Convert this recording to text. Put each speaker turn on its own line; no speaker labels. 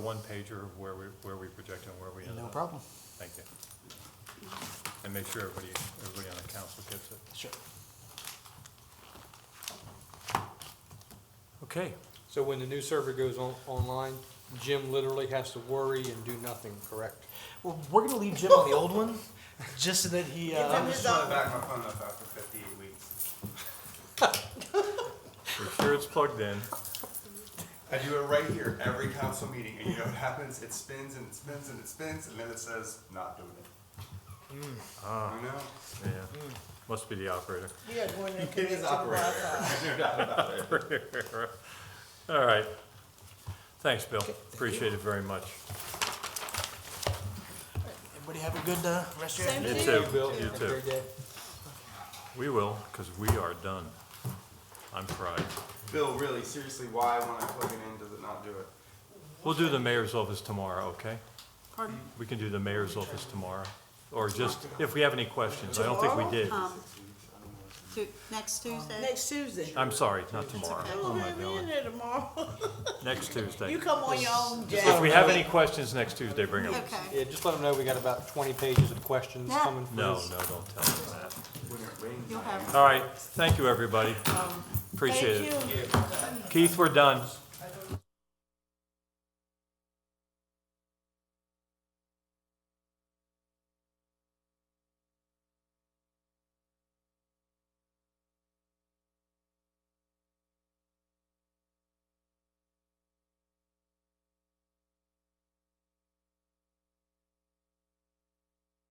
one pager of where we, where we project and where we end up.
No problem.
Thank you. And make sure everybody, everybody on the council gets it.
Sure.
Okay,
So when the new server goes on, online, Jim literally has to worry and do nothing, correct?
Well, we're gonna leave Jim on the old one, just so that he.
I'm
Uh,
just
Put
trying to
back my phone up after fifty-eight weeks.
we're sure it's plugged in.
I do it right here, every council meeting, and you know what happens? It spins and it spins and it spins, and then it says, not doing it. You know?
Yeah, must be the operator.
We are going to
It
commit
is
to
operator
Wi-Fi.
error. No doubt about it.
All right. Thanks, Bill. Appreciate it very much.
everybody have a good uh, rest of your
Same
afternoon.
You
Thank
too,
you.
Bill,
you
have a
too.
great day.
We will, because we are done. I'm fried.
Bill, really, seriously, why when I plug it in, does it not do it?
We'll do the mayor's office tomorrow, okay? We can do the mayor's office tomorrow, or just, if we have any questions. I don't think we did.
Tu- Next Tuesday?
Next Tuesday.
I'm sorry, not tomorrow.
I
Oh,
will
my
have you in
God.
there tomorrow.
Next Tuesday.
You come on your own, Jack.
If we have any questions next Tuesday, bring them.
Okay.
Yeah, just let them know we got about twenty pages of questions
Yeah.
coming from
No,
us.
no, don't tell them that.
When it rains.
You'll have
All right, thank you, everybody. Appreciate
Thank
it.
you.
Keith, we're done.